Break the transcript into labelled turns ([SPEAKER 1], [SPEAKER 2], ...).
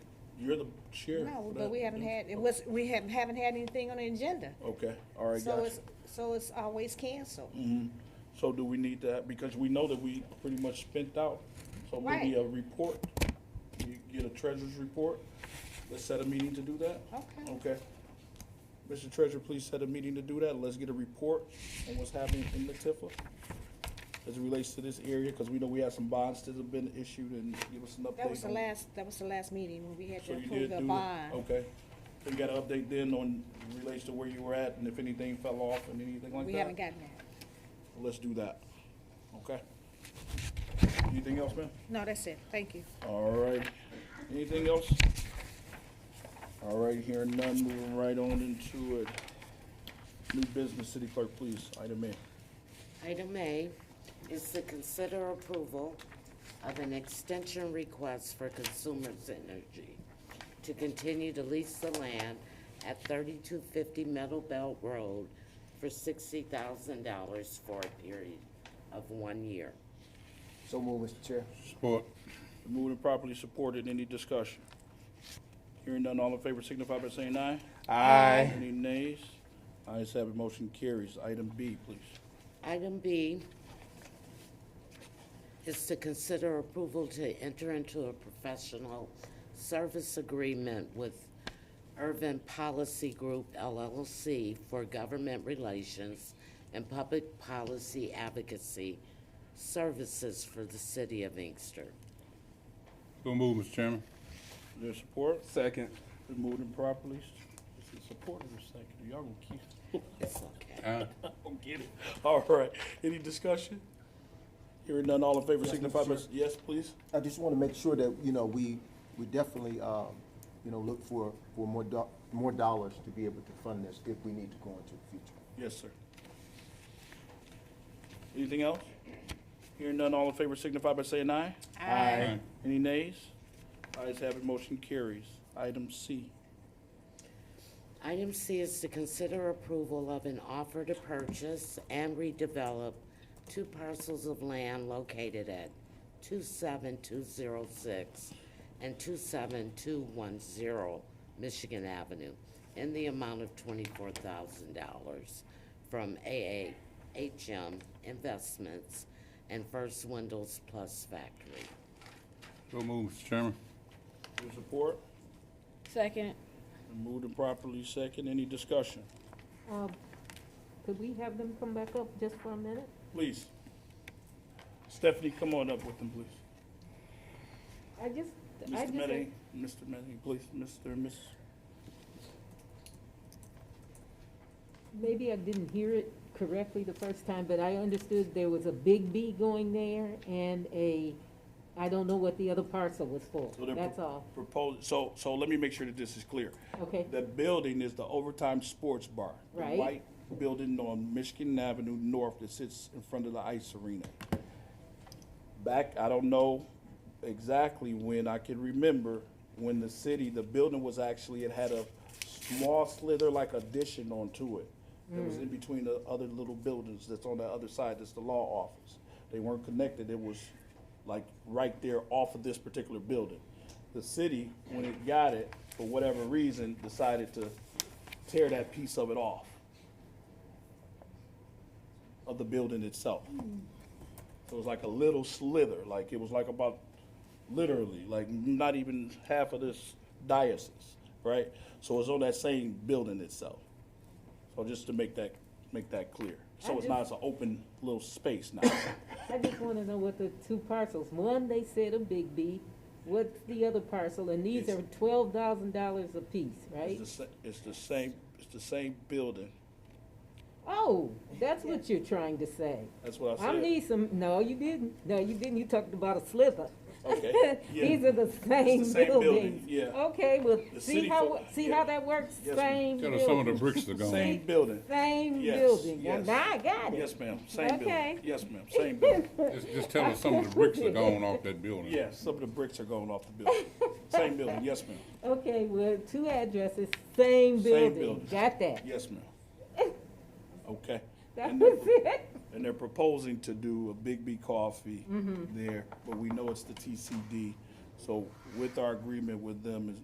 [SPEAKER 1] You're the chair.
[SPEAKER 2] No,
[SPEAKER 1] for
[SPEAKER 2] but
[SPEAKER 1] that.
[SPEAKER 2] we haven't had, it was, we haven't, haven't had anything on the agenda.
[SPEAKER 1] Okay, all right,
[SPEAKER 2] So
[SPEAKER 1] gotcha. Mm-hmm.
[SPEAKER 2] it's, so it's always canceled.
[SPEAKER 1] So do we need that? Because we know that we pretty much spent out. So maybe
[SPEAKER 2] Right.
[SPEAKER 1] a report, you get a treasurer's report. Let's set a meeting to do that.
[SPEAKER 2] Okay.
[SPEAKER 1] Okay. Mr. Treasurer, please set a meeting to do that. Let's get a report on what's happening in the Tifa as it relates to this area, because we know we have some bonds that have been issued and give us an update.
[SPEAKER 2] That was the
[SPEAKER 1] on-
[SPEAKER 2] last, that was the last meeting when we had
[SPEAKER 1] So
[SPEAKER 2] to
[SPEAKER 1] you
[SPEAKER 2] approve
[SPEAKER 1] did
[SPEAKER 2] the
[SPEAKER 1] do
[SPEAKER 2] bond.
[SPEAKER 1] it? Okay. So you got an update then on relates to where you were at and if anything fell off and anything like that?
[SPEAKER 2] We haven't gotten that.
[SPEAKER 1] Let's do that. Okay. Anything else, ma'am?
[SPEAKER 2] No, that's it. Thank you.
[SPEAKER 1] All right. Anything else? All right, hearing none, moving right on into it. New business, city clerk, please, item A.
[SPEAKER 3] Item A is to consider approval of an extension request for Consumers Energy to continue to lease the land at thirty-two fifty Meadow Belt Road for sixty thousand dollars for a period of one year.
[SPEAKER 4] So move, Mr. Chair.
[SPEAKER 1] Support. Moved and properly supported. Any discussion? Hearing none, all in favor signify by saying aye.
[SPEAKER 4] Aye.
[SPEAKER 1] Any nays? Ayes have it, motion carries. Item B, please.
[SPEAKER 3] Item B is to consider approval to enter into a professional service agreement with Urban Policy Group LLC for government relations and public policy advocacy services for the city of Inkster.
[SPEAKER 5] So moved, Mr. Chairman.
[SPEAKER 1] Is there support?
[SPEAKER 4] Second.
[SPEAKER 1] Been moved and properly supported and seconded. Y'all gonna keep,
[SPEAKER 3] It's okay.
[SPEAKER 5] Aye.
[SPEAKER 1] gonna get it. All right. Any discussion? Hearing none, all in favor
[SPEAKER 4] Yes,
[SPEAKER 1] signify by,
[SPEAKER 4] Mr. Chair.
[SPEAKER 1] yes, please?
[SPEAKER 4] I just want to make sure that, you know, we, we definitely, um, you know, look for, for more do, more dollars to be able to fund this if we need to go into the future.
[SPEAKER 1] Yes, sir. Anything else? Hearing none, all in favor signify by saying aye.
[SPEAKER 5] Aye.
[SPEAKER 1] Any nays? Ayes have it, motion carries. Item C.
[SPEAKER 3] Item C is to consider approval of an offer to purchase and redevelop two parcels of land located at 27206 and 27210 Michigan Avenue in the amount of $24,000 from AAHM Investments and First Windows Plus Factory.
[SPEAKER 5] So moved, Mr. Chairman.
[SPEAKER 1] Your support?
[SPEAKER 6] Second.
[SPEAKER 1] Been Moved and properly second. Any discussion?
[SPEAKER 6] Um, Could we have them come back up just for a minute?
[SPEAKER 1] Please. Stephanie, come on up with them, please.
[SPEAKER 6] I just, I
[SPEAKER 1] Mr.
[SPEAKER 6] just.
[SPEAKER 1] Medley, Mr. Medley, please, Mr. and Miss,
[SPEAKER 6] Maybe I didn't hear it correctly the first time, but I understood there was a big B going there and a, I don't know what the other parcel was for.
[SPEAKER 1] so they're
[SPEAKER 6] That's
[SPEAKER 1] pro-
[SPEAKER 6] all.
[SPEAKER 1] propos- so, so let me make sure that this is clear.
[SPEAKER 6] Okay.
[SPEAKER 1] The building is the Overtime Sports Bar. the
[SPEAKER 6] Right.
[SPEAKER 1] White building on Michigan Avenue North that sits in front of the ice arena. Back, I don't know exactly when, I can remember when the city, the building was actually, it had a small slither like addition onto it. It was in between the other little buildings that's on the other side, that's the law office. They weren't connected, it was like right there off of this particular building. The city, when it got it, for whatever reason, decided to tear that piece of it off of the building itself. So it was like a little slither, like it was like about literally, like not even half of this diocese, right? So it's on that same building itself. So just to make that, make that clear. So it's not, it's an open little space now.
[SPEAKER 6] I just wanna know what the two parcels, one, they said a big B, what's the other parcel? And these
[SPEAKER 1] It's-
[SPEAKER 6] are twelve thousand dollars apiece, right?
[SPEAKER 1] It's the, sa- it's the same, it's the same building.
[SPEAKER 6] Oh, that's what you're trying to say.
[SPEAKER 1] That's what I
[SPEAKER 6] I
[SPEAKER 1] said.
[SPEAKER 6] need some, no, you didn't, no, you didn't, you talked about a sliver.
[SPEAKER 1] Okay, yeah.
[SPEAKER 6] These are the same
[SPEAKER 1] same building,
[SPEAKER 6] buildings.
[SPEAKER 1] yeah.
[SPEAKER 6] Okay, well,
[SPEAKER 1] The
[SPEAKER 6] see
[SPEAKER 1] city
[SPEAKER 6] how,
[SPEAKER 1] folk-
[SPEAKER 6] see
[SPEAKER 1] yeah.
[SPEAKER 6] how that works,
[SPEAKER 1] Yes, ma'am.
[SPEAKER 6] same
[SPEAKER 5] Tell us some of the
[SPEAKER 6] building,
[SPEAKER 5] bricks that gone.
[SPEAKER 1] Same building.
[SPEAKER 6] same
[SPEAKER 1] Yes,
[SPEAKER 6] building. Now
[SPEAKER 1] yes.
[SPEAKER 6] now I got
[SPEAKER 1] Yes,
[SPEAKER 6] it.
[SPEAKER 1] ma'am, same building.
[SPEAKER 6] Okay.
[SPEAKER 1] Yes, ma'am, same building.
[SPEAKER 5] Just, just tell us some of the bricks that gone off that building.
[SPEAKER 1] Yes, some of the bricks are going off the building. Same building, yes, ma'am.
[SPEAKER 6] Okay, well, two addresses, same building,
[SPEAKER 1] building.
[SPEAKER 6] got that.
[SPEAKER 1] Yes, ma'am. Okay.
[SPEAKER 6] That
[SPEAKER 1] And
[SPEAKER 6] was
[SPEAKER 1] they're-
[SPEAKER 6] it.
[SPEAKER 1] And they're proposing to do a Big B
[SPEAKER 6] Mm-hmm.
[SPEAKER 1] Coffee there, but we know it's the TCD. So with our agreement with them, is